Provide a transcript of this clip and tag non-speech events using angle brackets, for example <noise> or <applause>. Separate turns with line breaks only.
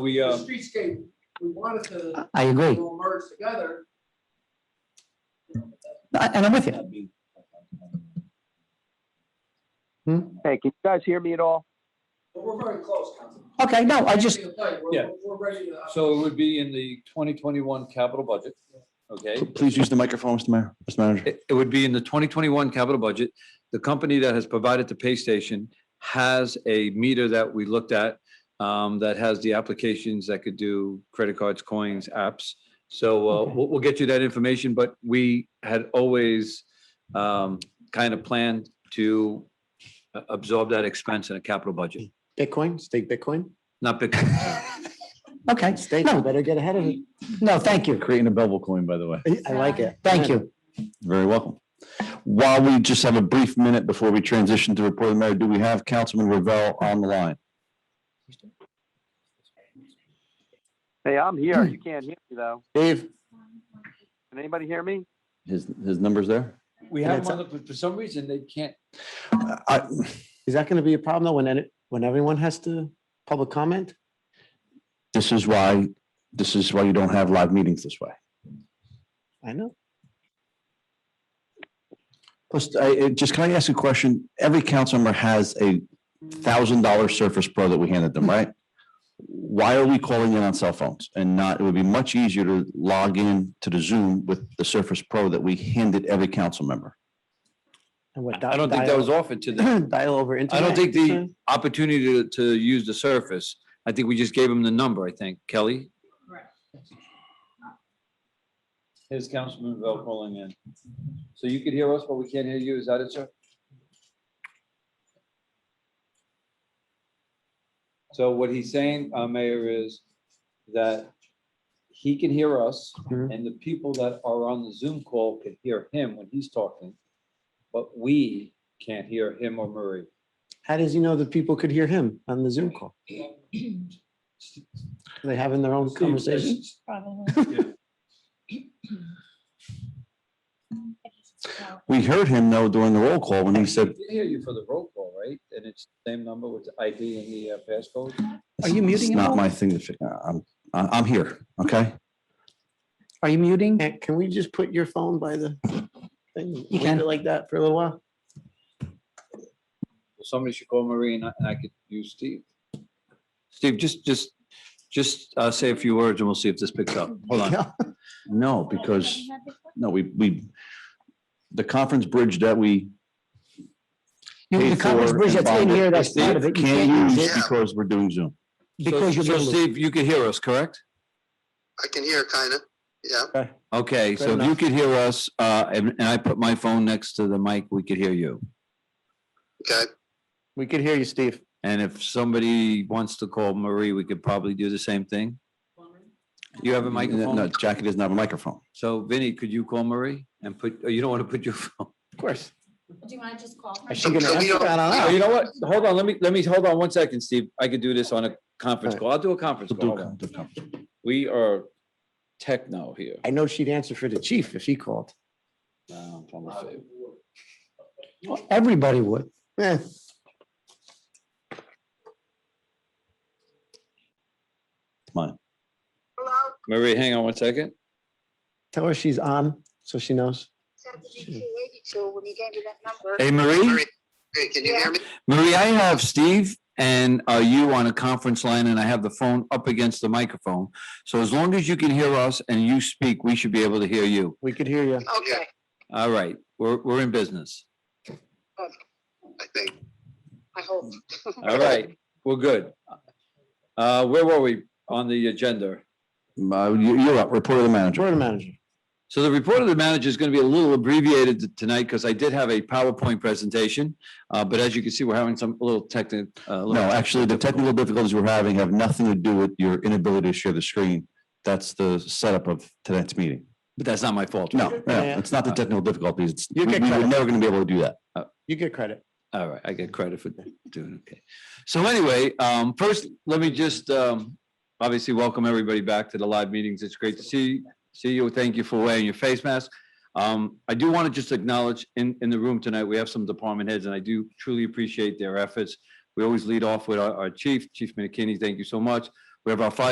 We,
The
uh,
streetscape, we wanted to,
I agree.
to merge together.
I- And I'm with you.
Hey, can you guys hear me at all?
But we're very close, Councilman.
Okay, no, I just,
We're- we're-
Yeah.
We're ready to. uh,
so it would be in the twenty twenty-one capital budget, okay?
Please use the microphone, Mr. Mayor, Mr. Manager.
It it would be in the twenty twenty-one capital budget. The company that has provided the pay station has a meter that we looked at um, that has the applications that could do credit cards, coins, apps. So uh,
Okay.
we'll, we'll get you that information, but we had always um, kind of planned to a- absorb that expense in a capital budget,
Bitcoin, stake Bitcoin.
not big.
okay,
Stake,
No.
you better get ahead of it.
no, thank you.
Creating a bevel coin, by the way.
I like it.
Thank you.
Very welcome. While we just have a brief minute before we transition to report of the mayor, do we have Councilman Ravel on the line?
Hey, I'm here.
Hmm.
You can't hear me though.
Dave,
Can anybody hear me?
His, his number's there?
We
have one,
but for some reason, they can't.
I,
is that going to be a problem though when, any- when everyone has to public comment?
this is why, this is why you don't have live meetings this way.
I know.
Plus, I, it- just can I ask a question? Every council member has a thousand dollar Surface Pro that we handed
Hmm.
them, right? Why are we calling in on cell phones and not, it would be much easier to log in to the Zoom with the Surface Pro that we handed every council member.
And what,
I don't think that
dial-
was offered to them.
<clears throat> Dial over
I
internet.
don't think the opportunity to, to use the surface, I think we just gave him the number, I think, Kelly. Here's Councilman Bell calling in. So you could hear us, but we can't hear you. Is that it, sir? So what he's saying, uh, Mayor, is that he can hear us
Mhm.
and the people that are on the Zoom call can hear him when he's talking. But we can't hear him or Murray.
How does he know that people could hear him on the Zoom call? Are they having their own conversation?
Probably.
<laughs>
We heard him though during the roll call when he
I
said,
did hear you for the roll call, right? And it's the same number with the ID and the uh, passcode?
Are you
It's-
muting
It's
him all?
not my thing to figure, I'm, I- I'm here, okay?
Are you muting?
Can can we just put your phone by the thing? Leave
can.
it Like that for a little while?
Well, Somebody should call Marie and I and I could use Steve. Steve, just, just, just uh, say a few words and we'll see if this picks up. Hold on.
Oh,
No, because, no, we, we, the conference bridge that we
You-
paid
The Congress
for
bridge
and
that's in here,
bonded,
that's part of it. You
Can't
can't
use
use it
because we're doing Zoom.
because
So-
you're.
So
muted.
Steve, you could hear us, correct?
I can hear kind of, yeah.
Okay, so if you
enough.
could hear us, uh, and and I put my phone next to the mic, we could hear you.
Okay,
We could hear you, Steve.
And if somebody wants to call Marie, we could probably do the same thing. You have a
No,
microphone?
Jackie doesn't have a microphone.
So Vinny, could you call Marie and put, oh, you don't want to put your <laughs> phone?
Of course.
Do you want to just call? her?
Is she gonna
So we
answer?
don't-
I don't know.
Oh, You know what? Hold on, let me, let me, hold on one second, Steve. I could do this on a conference
Alright.
call. I'll do a conference call. Hold on. We are techno here.
I know she'd answer for the chief if he called.
Now I'm trying to save.
Well, Everybody would. Eh.
Hello,
Marie, hang on one second.
Tell her she's on, so she knows.
seventy-two eighty-two, when you gave me that number.
Hey, Marie,
Marie. hey, can you hear me?
Marie, I have Steve and uh, you on a conference line and I have the phone up against the microphone. So as long as you can hear us and you speak, we should be able to hear you.
We could hear you.
Okay,
All right, we're, we're in business.
I think,
I hope.
All right, we're good. Uh, where were we on the agenda?
Uh, you- You're up, report of the manager.
Jordan manager.
So the report of the manager is going to be a little abbreviated t- tonight because I did have a PowerPoint presentation. Uh, but as you can see, we're having some a little technical.
No, actually, the technical difficulties we're having have nothing to do with your inability to share the screen. That's the setup of tonight's meeting.
But that's not my fault.
No,
right?
no, it's not the technical difficulties. It's- We
You
we
get
were
credit.
never going to be able to do that.
You get credit.
All right, I get credit for doing okay. So anyway, um, first, let me just um, obviously welcome everybody back to the live meetings. It's great to see see you. Thank you for wearing your face mask. Um, I do want to just acknowledge in in the room tonight, we have some department heads, and I do truly appreciate their efforts. We always lead off with our, our chief, Chief McKinney. Thank you so much. We have our fire